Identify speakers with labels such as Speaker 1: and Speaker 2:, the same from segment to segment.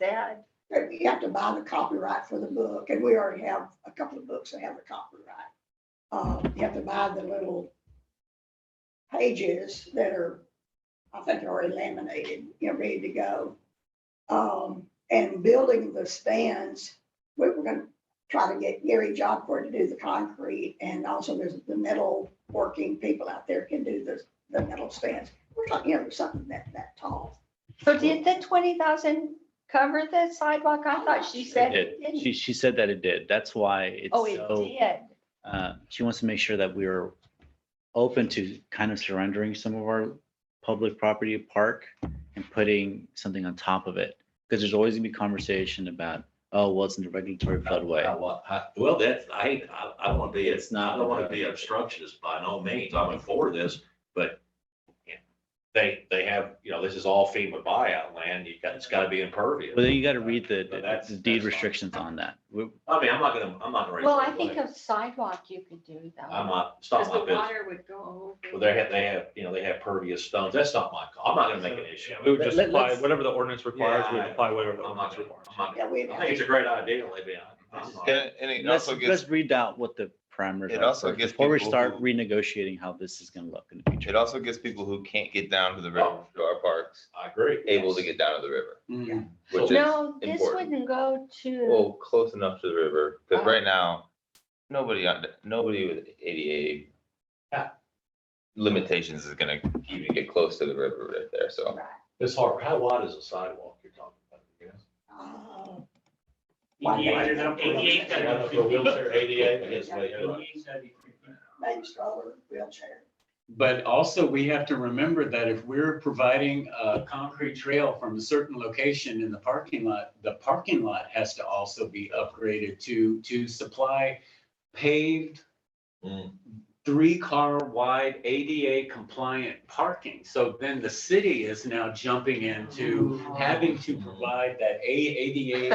Speaker 1: sad.
Speaker 2: But we have to buy the copyright for the book, and we already have a couple of books that have the copyright. Uh, you have to buy the little pages that are, I think are already laminated, you know, ready to go. Um, and building the stands, we were gonna try to get Gary Jobcourt to do the concrete, and also there's the metal working people out there can do the, the metal stands. We're talking, you know, something that, that tall.
Speaker 1: So did the twenty thousand cover the sidewalk? I thought she said it
Speaker 3: It did. She,
Speaker 1: didn't.
Speaker 3: she said that it did. That's why it's
Speaker 1: Oh,
Speaker 3: so,
Speaker 1: it did.
Speaker 3: uh, she wants to make sure that we're open to kind of surrendering some of our public property park and putting something on top of it. Because there's always gonna be conversation about, oh, well, it's in the regulatory
Speaker 4: I
Speaker 3: floodway.
Speaker 4: want- I- Well, that's, I, hate- I, I don't want to be,
Speaker 3: It's
Speaker 4: it's
Speaker 3: not
Speaker 4: not, I don't want to be
Speaker 3: about-
Speaker 4: obstructionist by no means. I'm in for this, but yeah, they, they have, you know, this is all FEMA buyout land. You got, it's got to be impervious.
Speaker 3: Well, then you gotta read the-
Speaker 4: But that's-
Speaker 3: the deed
Speaker 4: that's fine.
Speaker 3: restrictions on that. We-
Speaker 4: I mean, I'm not gonna, I'm not gonna.
Speaker 1: Well, I think a sidewalk you could do
Speaker 4: I'm
Speaker 1: though.
Speaker 4: not, it's
Speaker 1: Because
Speaker 4: not
Speaker 1: the
Speaker 4: my business.
Speaker 1: water would go
Speaker 4: Well,
Speaker 1: over.
Speaker 4: they have, they have, you know, they have pervious stones. That's not my, call. I'm not gonna make an issue.
Speaker 5: Yeah, We would just
Speaker 3: Let-
Speaker 5: apply,
Speaker 3: let's-
Speaker 5: whatever the ordinance requires, we would apply whatever the
Speaker 4: I'm not gonna-
Speaker 5: ordinance requires.
Speaker 4: I'm not
Speaker 2: Yeah,
Speaker 4: gonna-
Speaker 2: we.
Speaker 4: I think it's a great idea, Libby. I- I'm not-
Speaker 6: And, and it
Speaker 3: Let's,
Speaker 6: also gets,
Speaker 3: let's read out what the parameters
Speaker 6: It
Speaker 3: are
Speaker 6: also
Speaker 3: first
Speaker 6: gets
Speaker 3: before we
Speaker 6: people
Speaker 3: start
Speaker 6: who-
Speaker 3: renegotiating how this is gonna look in the future.
Speaker 6: it also gets people who can't get down to the river, to our parks,
Speaker 4: I agree.
Speaker 6: able to get down to the river.
Speaker 2: Yeah.
Speaker 6: Which is,
Speaker 1: No, this
Speaker 6: important.
Speaker 1: wouldn't go to,
Speaker 6: well, close enough to the river, because
Speaker 1: Ah.
Speaker 6: right now, nobody on, nobody with ADA
Speaker 4: Yeah.
Speaker 6: limitations is gonna even get close to the river right there, so.
Speaker 4: It's hard. How wide is a sidewalk you're talking about? you know?
Speaker 2: Uh,
Speaker 4: Eighty-eight.
Speaker 2: Baby stroller, wheelchair.
Speaker 7: But also, we have to remember that if we're providing a concrete trail from a certain location in the parking lot, the parking lot has to also be upgraded to, to supply paved,
Speaker 4: Mm.
Speaker 7: three-car wide ADA compliant parking. So then the city is now jumping into
Speaker 1: Oh.
Speaker 7: having to provide that A- ADA.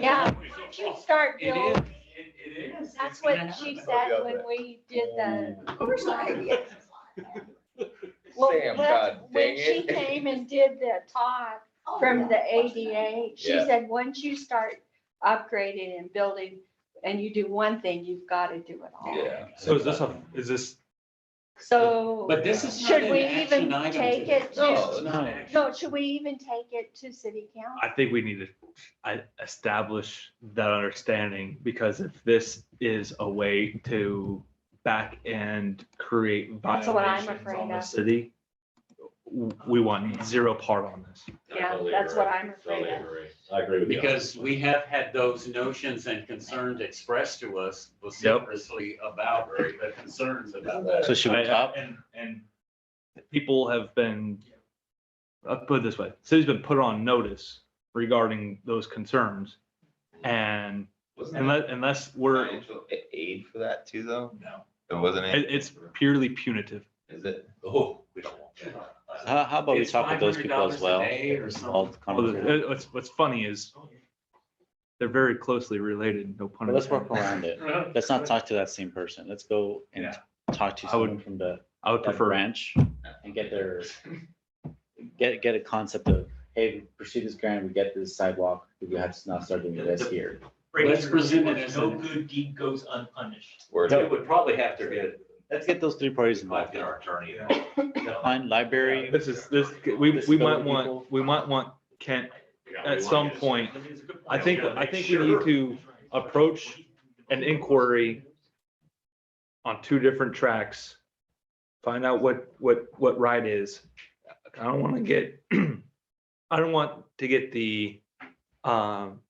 Speaker 1: Yeah.
Speaker 7: compliant.
Speaker 1: you start
Speaker 7: It
Speaker 1: building.
Speaker 7: is, it- it is.
Speaker 1: That's
Speaker 7: It's gonna
Speaker 1: what she
Speaker 7: happen.
Speaker 1: said when we did the.
Speaker 2: Of course, I did.
Speaker 1: Well, when-
Speaker 6: Sam, God
Speaker 1: When
Speaker 6: dang
Speaker 1: she
Speaker 6: it.
Speaker 1: came and did the talk
Speaker 2: Oh, yeah.
Speaker 1: from the ADA, she
Speaker 6: Yeah.
Speaker 1: said, once you start upgrading and building and you do one thing, you've got to do it all.
Speaker 6: Yeah.
Speaker 5: So is this a, is this,
Speaker 1: So,
Speaker 7: But this is not
Speaker 1: Should
Speaker 7: an
Speaker 1: we
Speaker 7: action
Speaker 1: even
Speaker 7: item
Speaker 1: take
Speaker 7: today.
Speaker 1: it No,
Speaker 6: to-
Speaker 7: It's not an
Speaker 5: no.
Speaker 7: action.
Speaker 1: no, should we even take it to city council?
Speaker 5: I think we need to I- establish that understanding, because if this is a way to back and create
Speaker 1: That's what I'm
Speaker 5: violations
Speaker 1: afraid
Speaker 5: on the
Speaker 1: of.
Speaker 5: city, w- we want zero part on this.
Speaker 1: Yeah,
Speaker 4: I totally
Speaker 1: that's what
Speaker 4: agree.
Speaker 1: I'm afraid
Speaker 4: Totally
Speaker 1: of.
Speaker 4: agree. I agree with you.
Speaker 7: Because we have had those notions and concerns expressed to us vociferously about the concerns about that.
Speaker 3: So should we
Speaker 5: I- I-
Speaker 3: top?
Speaker 5: And, and people have been, I'll put it this way, city's been put on notice regarding those concerns. And
Speaker 6: Wasn't there
Speaker 5: unless, unless we're, it,
Speaker 6: financial a- Aid for that too, though?
Speaker 4: No.
Speaker 6: There wasn't any,
Speaker 5: it's purely punitive.
Speaker 6: is it?
Speaker 4: Oh, we don't want that.
Speaker 3: How, how about we
Speaker 7: It's
Speaker 3: talk with those people as
Speaker 7: $500 a
Speaker 3: well?
Speaker 7: day or
Speaker 3: All
Speaker 7: something.
Speaker 5: Well,
Speaker 3: conversation.
Speaker 5: the- uh, What's, what's funny is they're very closely related, no pun
Speaker 3: Well, Let's work
Speaker 5: intended.
Speaker 3: around it. Let's not talk to that same person. Let's go and talk to
Speaker 5: I would-
Speaker 3: someone from the
Speaker 5: I would
Speaker 3: that
Speaker 5: prefer,
Speaker 3: branch and get their, get, get a concept of, hey, pursue this grant, we get this sidewalk, we have to not start doing this here.
Speaker 7: Let's present it as
Speaker 8: No
Speaker 7: an-
Speaker 8: good deed goes unpunished.
Speaker 6: Word.
Speaker 4: We would probably have to get,
Speaker 3: Let's get those three parties
Speaker 4: might
Speaker 3: involved.
Speaker 4: get our attorney.
Speaker 3: Fine, library,
Speaker 5: this is, this, we, we might
Speaker 3: Disability people.
Speaker 5: want, we might want Kent at some point,
Speaker 8: I mean, it's a good
Speaker 5: I
Speaker 8: point.
Speaker 5: think,
Speaker 8: Yeah,
Speaker 5: I
Speaker 8: make
Speaker 5: think we
Speaker 8: sure-
Speaker 5: need to approach an inquiry on two different tracks. Find out what, what, what right is. I don't want to get, I don't want to get the, um,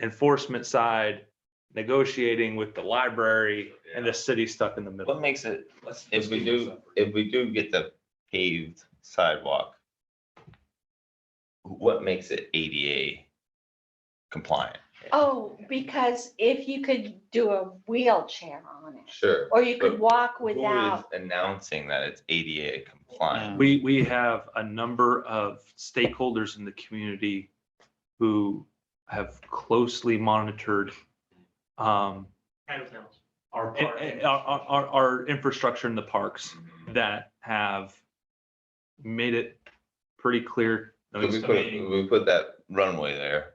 Speaker 5: enforcement side negotiating with the library and the city stuck in the
Speaker 6: What
Speaker 5: middle.
Speaker 6: makes it,
Speaker 5: Let's-
Speaker 6: if we do, if we do get the paved sidewalk, what makes it ADA compliant?
Speaker 1: Oh, because if you could do a wheelchair on it,
Speaker 6: Sure.
Speaker 1: or you could
Speaker 6: But
Speaker 1: walk
Speaker 6: Who is
Speaker 1: without,
Speaker 6: Announcing that it's ADA
Speaker 3: um,
Speaker 6: compliant.
Speaker 5: We, we have a number of stakeholders in the community who have closely monitored um,
Speaker 8: Kind of knows.
Speaker 7: Our
Speaker 5: and-
Speaker 7: part.
Speaker 5: and Eh, our, our, our- our infrastructure in the parks that have made it pretty clear.
Speaker 6: So we put, we put that runway there.